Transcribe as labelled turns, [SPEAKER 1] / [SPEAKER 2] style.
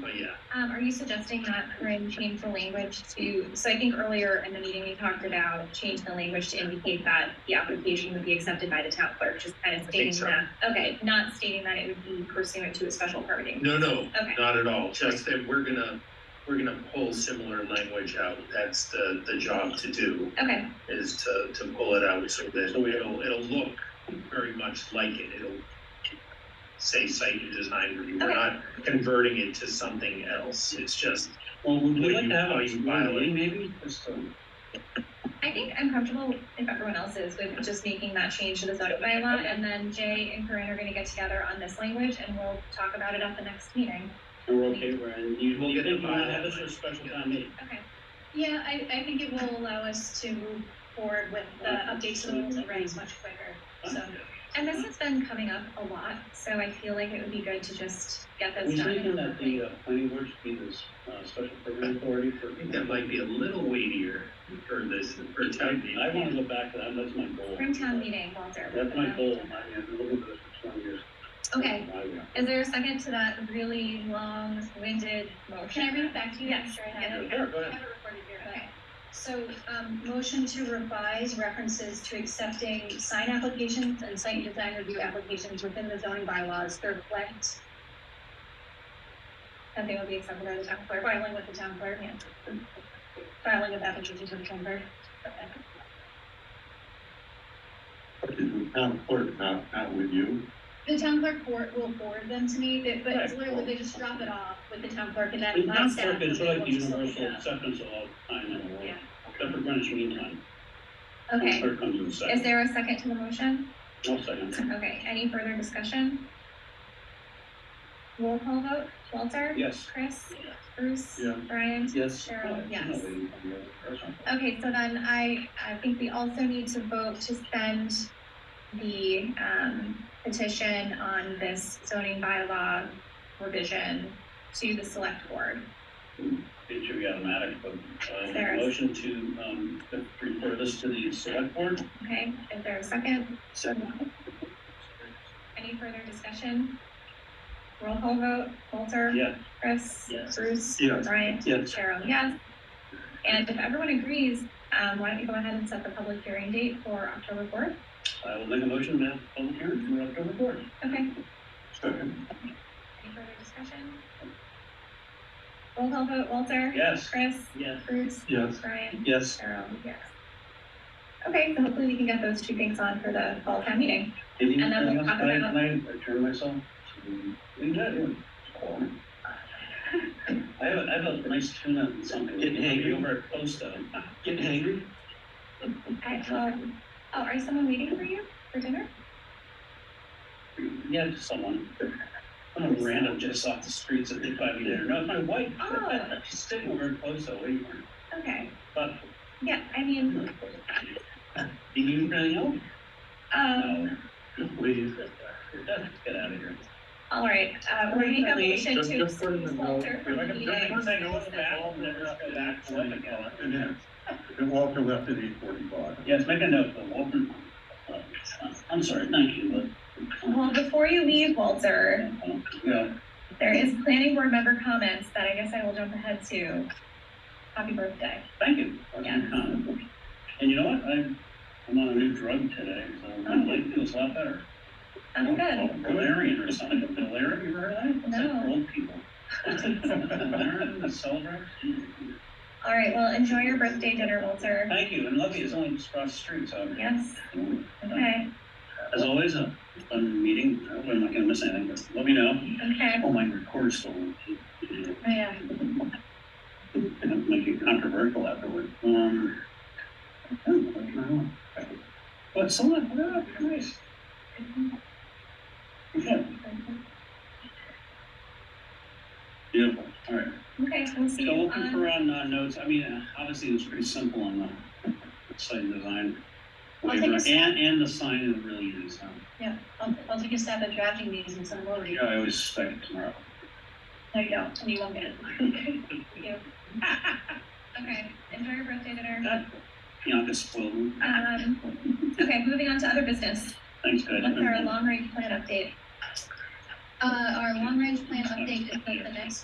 [SPEAKER 1] But yeah,
[SPEAKER 2] Um, are you suggesting that Corinne change the language to, so I think earlier in the meeting, we talked about changing the language to indicate that the application would be accepted by the town clerk, just kind of
[SPEAKER 1] think
[SPEAKER 2] stating
[SPEAKER 1] so.
[SPEAKER 2] that, okay, not stating that it would be pursuant to a special permitting.
[SPEAKER 1] no, no,
[SPEAKER 2] Okay.
[SPEAKER 1] not at all. Just that we're gonna, we're gonna pull similar language out. That's the, the job to do.
[SPEAKER 2] Okay,
[SPEAKER 1] is to, to pull it out so that it'll, it'll look very much like it. It'll say site and design review. We're
[SPEAKER 2] Okay.
[SPEAKER 1] not converting it to something else. It's just,
[SPEAKER 3] Well, would
[SPEAKER 1] Would
[SPEAKER 3] we like
[SPEAKER 1] you-
[SPEAKER 3] to have
[SPEAKER 1] how
[SPEAKER 3] a
[SPEAKER 1] you
[SPEAKER 3] community
[SPEAKER 1] file it?
[SPEAKER 3] meeting maybe, just to,
[SPEAKER 2] I think I'm comfortable, if everyone else is, with just making that change to the zoning bylaw, and then Jay and Corinne are gonna get together on this language, and we'll talk about it at the next meeting.
[SPEAKER 3] and we're okay, we're, and you,
[SPEAKER 1] We'll
[SPEAKER 3] you
[SPEAKER 1] get
[SPEAKER 3] think
[SPEAKER 1] the
[SPEAKER 3] you wanna
[SPEAKER 1] bylaw
[SPEAKER 3] have this for a
[SPEAKER 1] language,
[SPEAKER 3] special
[SPEAKER 1] yeah.
[SPEAKER 3] time meeting?
[SPEAKER 2] Okay,
[SPEAKER 4] Yeah, I, I think it will allow us to move forward with the updates to the rules and regs much quicker, so.
[SPEAKER 2] and this has been coming up a lot, so I feel like it would be good to just get
[SPEAKER 3] We
[SPEAKER 2] those done.
[SPEAKER 3] thinking that the, uh, planning board should be this, uh, special permit authority for.
[SPEAKER 1] I think that might be a little weightier for this, for town meeting.
[SPEAKER 3] I wanna go back to that, that's my goal.
[SPEAKER 2] From town meeting, Walter.
[SPEAKER 3] That's my goal, I mean, I've been looking for this for twenty years. uh,
[SPEAKER 2] Okay,
[SPEAKER 3] Why we-
[SPEAKER 2] is there a second to that really long winded motion?
[SPEAKER 4] Can I read it back to you? I'm
[SPEAKER 2] Yes.
[SPEAKER 4] sure I have it.
[SPEAKER 3] Sure, go
[SPEAKER 4] I
[SPEAKER 3] ahead.
[SPEAKER 4] have it recorded here, but.
[SPEAKER 2] Okay,
[SPEAKER 4] So, um, motion to revise references to accepting sign applications and site design review applications within the zoning bylaws to reflect that they will be accepted by the town clerk, filing with the town clerk, yeah. Filing of applications with the town clerk.
[SPEAKER 5] Town clerk, not, not with you.
[SPEAKER 4] The town clerk for- will forward them to me, but, but it's
[SPEAKER 3] Right.
[SPEAKER 4] literally, they just drop it off with the town clerk and
[SPEAKER 3] It's
[SPEAKER 4] then my
[SPEAKER 3] not
[SPEAKER 4] staff.
[SPEAKER 3] perfect, it's sort of like the
[SPEAKER 4] will just look it
[SPEAKER 3] universal
[SPEAKER 4] up.
[SPEAKER 3] acceptance of all time in the world,
[SPEAKER 4] Yeah.
[SPEAKER 3] except for Greenwich Mean Time.
[SPEAKER 2] okay.
[SPEAKER 3] Third comes in second.
[SPEAKER 2] Is there a second to the motion?
[SPEAKER 3] I'll second.
[SPEAKER 2] Okay, any further discussion? Roll call vote, Walter?
[SPEAKER 3] Yes.
[SPEAKER 2] Chris? Bruce?
[SPEAKER 5] Yeah.
[SPEAKER 2] Brian?
[SPEAKER 3] Yes.
[SPEAKER 2] Cheryl, yes.
[SPEAKER 3] yes.
[SPEAKER 2] Okay, so then I, I think we also need to vote to send the, um, petition on this zoning bylaw revision to the select board.
[SPEAKER 3] It should be automatic, but, uh,
[SPEAKER 2] Sarah.
[SPEAKER 3] motion to, um, refer this to the select board.
[SPEAKER 2] Okay, is there a second?
[SPEAKER 3] Second.
[SPEAKER 2] Any further discussion? Roll call vote, Walter?
[SPEAKER 3] Yeah,
[SPEAKER 2] Chris?
[SPEAKER 3] Yes.
[SPEAKER 2] Bruce?
[SPEAKER 5] Yes.
[SPEAKER 2] Brian?
[SPEAKER 3] Yes.
[SPEAKER 2] Cheryl, yes. And if everyone agrees, um, why don't you go ahead and set the public hearing date for October fourth?
[SPEAKER 3] I will make a motion to have public hearing for October fourth.
[SPEAKER 2] Okay,
[SPEAKER 5] Second,
[SPEAKER 2] any further discussion? Roll call vote, Walter?
[SPEAKER 3] Yes.
[SPEAKER 2] Chris?
[SPEAKER 3] Yes.
[SPEAKER 2] Bruce?
[SPEAKER 5] yes.
[SPEAKER 2] Brian?
[SPEAKER 3] Yes.
[SPEAKER 2] Cheryl, yes. Okay, so hopefully we can get those two things on for the fall town meeting.
[SPEAKER 3] Anything
[SPEAKER 2] And then we'll
[SPEAKER 3] else?
[SPEAKER 2] talk
[SPEAKER 3] Can I,
[SPEAKER 2] about-
[SPEAKER 3] can I turn myself? We did. I have, a- I have a nice tuna and something.
[SPEAKER 5] Getting hangry?
[SPEAKER 3] Over at uh, Costa.
[SPEAKER 5] Getting angry?
[SPEAKER 2] I, um, oh, are someone waiting for you for dinner?
[SPEAKER 3] Yeah, just someone. Some random just off the streets that they find me there. No, it's my wife.
[SPEAKER 2] Oh.
[SPEAKER 3] She's sitting over at Costa waiting for me.
[SPEAKER 2] Okay,
[SPEAKER 3] But
[SPEAKER 2] yeah, I mean,
[SPEAKER 3] Do you really know?
[SPEAKER 2] um,
[SPEAKER 5] Please.
[SPEAKER 3] Get out of here.
[SPEAKER 2] all right, uh, we're gonna make a motion
[SPEAKER 5] Just-
[SPEAKER 2] to
[SPEAKER 5] just put in the
[SPEAKER 2] excuse Walter
[SPEAKER 5] note.
[SPEAKER 2] from the meeting.
[SPEAKER 5] And then, and Walter left at eight forty-five.
[SPEAKER 3] Yes, make a note, but Walton, uh, I'm sorry, thank you,
[SPEAKER 2] Well, before you leave, Walter,
[SPEAKER 3] but, uh, yeah,
[SPEAKER 2] there is planning board member comments that I guess I will jump ahead to. Happy birthday.
[SPEAKER 3] thank you. for your
[SPEAKER 2] Yeah.
[SPEAKER 3] comment. And you know what? I'm, I'm on a new drug today, so my leg feels a lot better.
[SPEAKER 2] I'm good.
[SPEAKER 3] Valerian or something. Valerian, you heard of that? It's like
[SPEAKER 2] No.
[SPEAKER 3] for Old people. Valerian, the celebrant.
[SPEAKER 2] All right, well, enjoy your birthday dinner, Walter.
[SPEAKER 3] Thank you, and Lovey is only just across the street, so. I'm-
[SPEAKER 2] Yes, okay,
[SPEAKER 3] As always, a fun meeting. I hope I'm not gonna miss anything, but let me know.
[SPEAKER 2] okay. Oh,
[SPEAKER 3] Oh, my record's still on.
[SPEAKER 2] Yeah,
[SPEAKER 3] It'll Make it controversial afterward. Um. I don't know, I don't know. But someone, what about Chris? Yeah, beautiful, all right.
[SPEAKER 2] okay, we'll see
[SPEAKER 3] So
[SPEAKER 2] you
[SPEAKER 3] looking
[SPEAKER 2] on.
[SPEAKER 3] for on uh, notes, I mean, uh, obviously it was pretty simple on the site design.
[SPEAKER 4] I'll take a
[SPEAKER 3] waiver,
[SPEAKER 4] stab.
[SPEAKER 3] And, and the sign it really is, um,
[SPEAKER 4] I'll, I'll take a stab at drafting these and some more.
[SPEAKER 3] you know, I always expect it tomorrow.
[SPEAKER 4] No, you don't, and you won't get it.
[SPEAKER 2] Okay, enjoy your birthday dinner.
[SPEAKER 3] That- You know, I could spoil them.
[SPEAKER 2] Um, okay, moving on to other business.
[SPEAKER 3] Thanks, guys.
[SPEAKER 2] What's our long range plan update?
[SPEAKER 4] Uh, our long range plan update is at the next